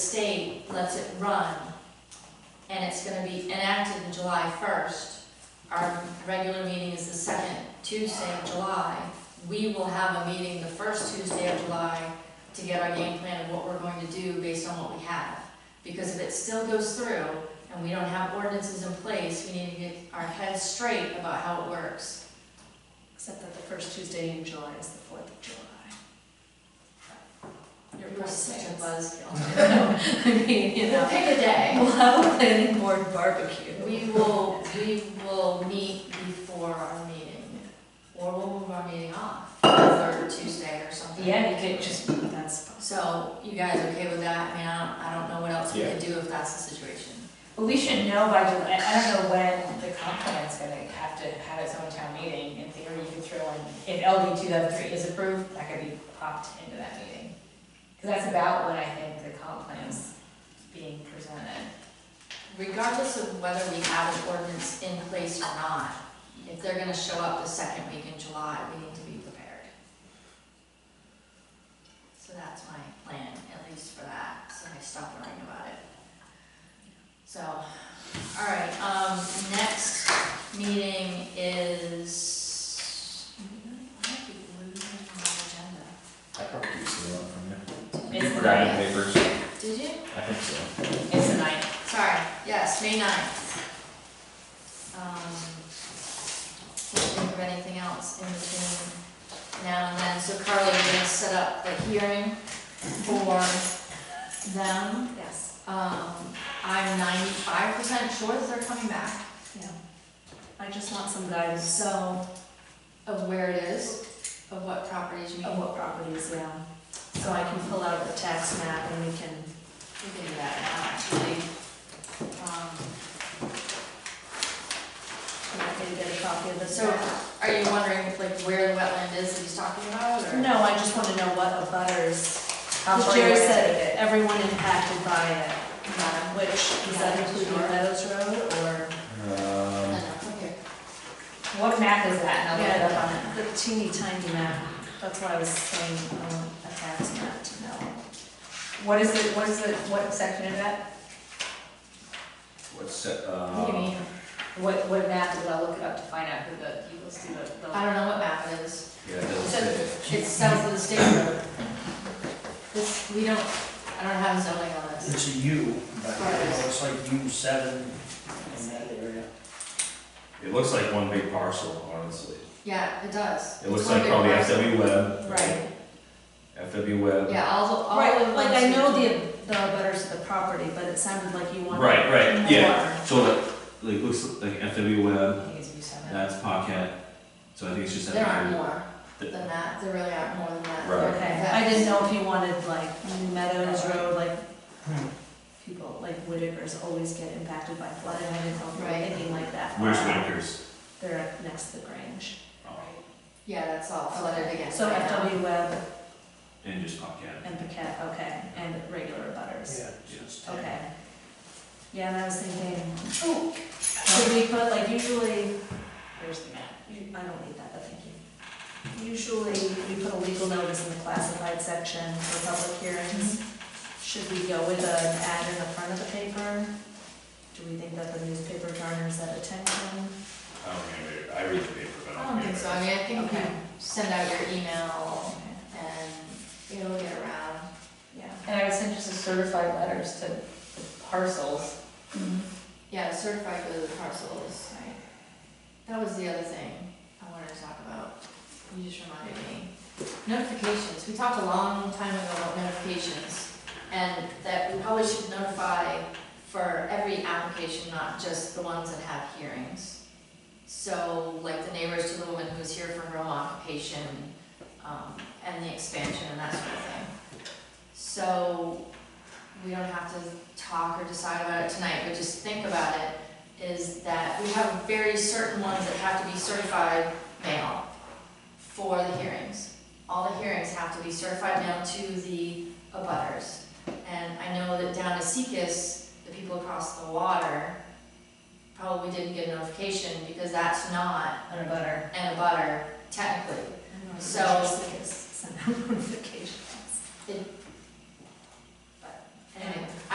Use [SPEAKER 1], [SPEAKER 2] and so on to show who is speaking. [SPEAKER 1] state lets it run, and it's gonna be enacted in July first, our regular meeting is the second Tuesday of July, we will have a meeting the first Tuesday of July to get our game plan of what we're going to do based on what we have. Because if it still goes through and we don't have ordinances in place, we need to get our heads straight about how it works.
[SPEAKER 2] Except that the first Tuesday in July is the fourth of July.
[SPEAKER 1] You're such a buzzkill. I mean, you know,
[SPEAKER 2] Pick a day.
[SPEAKER 1] we'll have a planning board.
[SPEAKER 2] Board barbecue.
[SPEAKER 1] We will, we will meet before our meeting, or we'll move our meeting off, third Tuesday or something.
[SPEAKER 2] Yeah, you could just, that's,
[SPEAKER 1] So, you guys okay with that? I mean, I don't, I don't know what else we
[SPEAKER 3] Yeah.
[SPEAKER 1] could do if that's the situation.
[SPEAKER 4] But we should know by, July- I don't know when the comp plan's gonna have to have its own town meeting. In theory, you could throw in, if LD two thousand three is approved, that could be popped into that meeting. Cause that's about when I think the comp plan's being presented.
[SPEAKER 1] regardless of whether we have an ordinance in place or not, if they're gonna show up the second week in July, we need to be prepared. So that's my plan, at least for that, so I stop worrying about it. So, all right, um, next meeting is, I might be losing my
[SPEAKER 3] I probably see one from you.
[SPEAKER 4] It's the
[SPEAKER 3] Forgotten
[SPEAKER 4] ninth,
[SPEAKER 3] papers,
[SPEAKER 1] agenda. Did you?
[SPEAKER 3] I think so.
[SPEAKER 4] it's the ninth.
[SPEAKER 1] Sorry, yes, May ninth. Um, Can't think of anything else in between now and then, so Carly, we're gonna set up the hearing for them.
[SPEAKER 2] yes,
[SPEAKER 1] Um, I'm ninety-five percent sure that they're coming back,
[SPEAKER 2] yeah. I just want some guidance
[SPEAKER 1] so, of where it is, of what properties you
[SPEAKER 2] of
[SPEAKER 1] mean.
[SPEAKER 2] what properties, yeah. So I can pull out the tax map and we can,
[SPEAKER 1] We can do that now, actually. Um,
[SPEAKER 2] I'm happy to get a copy of the
[SPEAKER 1] So,
[SPEAKER 2] So,
[SPEAKER 1] are you wondering like where the wetland is that he's talking about, or?
[SPEAKER 2] no, I just want to know what abutters. butters,
[SPEAKER 4] How far you
[SPEAKER 2] Jerry
[SPEAKER 4] wanna
[SPEAKER 2] said
[SPEAKER 4] take it.
[SPEAKER 2] everyone impacted by it,
[SPEAKER 1] Yeah.
[SPEAKER 2] Um, which, is that including
[SPEAKER 1] Sure.
[SPEAKER 2] Meadows Road or?
[SPEAKER 1] No,
[SPEAKER 3] Um,
[SPEAKER 1] no, okay.
[SPEAKER 4] What map is that? And I'll look it up on it.
[SPEAKER 2] Yeah, the teeny tiny map, that's why I was saying, I want a tax map to know.
[SPEAKER 4] What is it, what is it, what section is that?
[SPEAKER 3] what's, that,
[SPEAKER 1] What do you
[SPEAKER 3] uh,
[SPEAKER 1] mean?
[SPEAKER 4] What, what map is, I'll look it up to find out who the, he goes through the- the.
[SPEAKER 1] I don't know what map it is.
[SPEAKER 3] yeah, it doesn't fit.
[SPEAKER 1] It's south of the state road. This, we don't, I don't have zoning on this.
[SPEAKER 5] It's a U, but it looks like U seven in that area.
[SPEAKER 3] It looks like one big parcel, honestly.
[SPEAKER 1] Yeah, it does.
[SPEAKER 3] It looks like probably FW Web.
[SPEAKER 1] Right,
[SPEAKER 3] FW Web.
[SPEAKER 1] yeah, all, the- all of
[SPEAKER 2] Right,
[SPEAKER 1] them.
[SPEAKER 2] like I know the, the butters of the property, but it sounded like you wanted.
[SPEAKER 3] Right, right, yeah.
[SPEAKER 2] more.
[SPEAKER 3] So that, like, looks like FW Web,
[SPEAKER 4] I think it's U seven.
[SPEAKER 3] that's Pocket, so I think it's just
[SPEAKER 1] There aren't
[SPEAKER 3] FW.
[SPEAKER 1] more than that, there really aren't more than that.
[SPEAKER 3] Right.
[SPEAKER 2] Okay, I didn't know if you wanted like Meadows Road, like people, like Whitakers always get impacted by flooding, I didn't know if you were
[SPEAKER 1] Right.
[SPEAKER 2] thinking like that.
[SPEAKER 3] Where's Winters?
[SPEAKER 2] They're next to the Grange.
[SPEAKER 3] Oh,
[SPEAKER 1] Yeah, that's all flooded again.
[SPEAKER 2] So
[SPEAKER 1] right now.
[SPEAKER 2] FW Webb
[SPEAKER 3] And just Pocket.
[SPEAKER 2] and Paquette, okay, and regular butters.
[SPEAKER 5] Yeah, it's just-
[SPEAKER 2] Okay. Yeah, and I was thinking, oh, should we put, like, usually,
[SPEAKER 4] Where's the map?
[SPEAKER 2] you- I don't need that, but thank you. Usually, we put a legal notice in the classified section for public hearings. Should we go with an ad in the front of the paper? Do we think that the newspaper garners that attention?
[SPEAKER 3] I don't remember, I read the paper, but
[SPEAKER 1] I don't think so, I mean, I think if you
[SPEAKER 2] Okay.
[SPEAKER 1] send out your email
[SPEAKER 2] Okay,
[SPEAKER 1] and it'll get around.
[SPEAKER 2] Yeah.
[SPEAKER 4] And I would send just a certified letters to the parcels.
[SPEAKER 1] Yeah, certified for the parcels. That was the other thing I wanted to talk about. You just reminded me. Notifications, we talked a long time ago about notifications, and that we probably should notify for every application, not just the ones that have hearings. So, like the neighbors to the woman who's here for her own occupation, um, and the expansion and that sort of thing. So, we don't have to talk or decide about it tonight, but just think about it, is that we have very certain ones that have to be certified mail for the hearings. All the hearings have to be certified mail to the abutters. And I know that down to Seacus, the people across the water probably didn't get a notification because that's not
[SPEAKER 4] On a butter.
[SPEAKER 1] an abutter technically.
[SPEAKER 2] I don't know,
[SPEAKER 1] So-
[SPEAKER 2] just like it's- Send out notifications.
[SPEAKER 1] It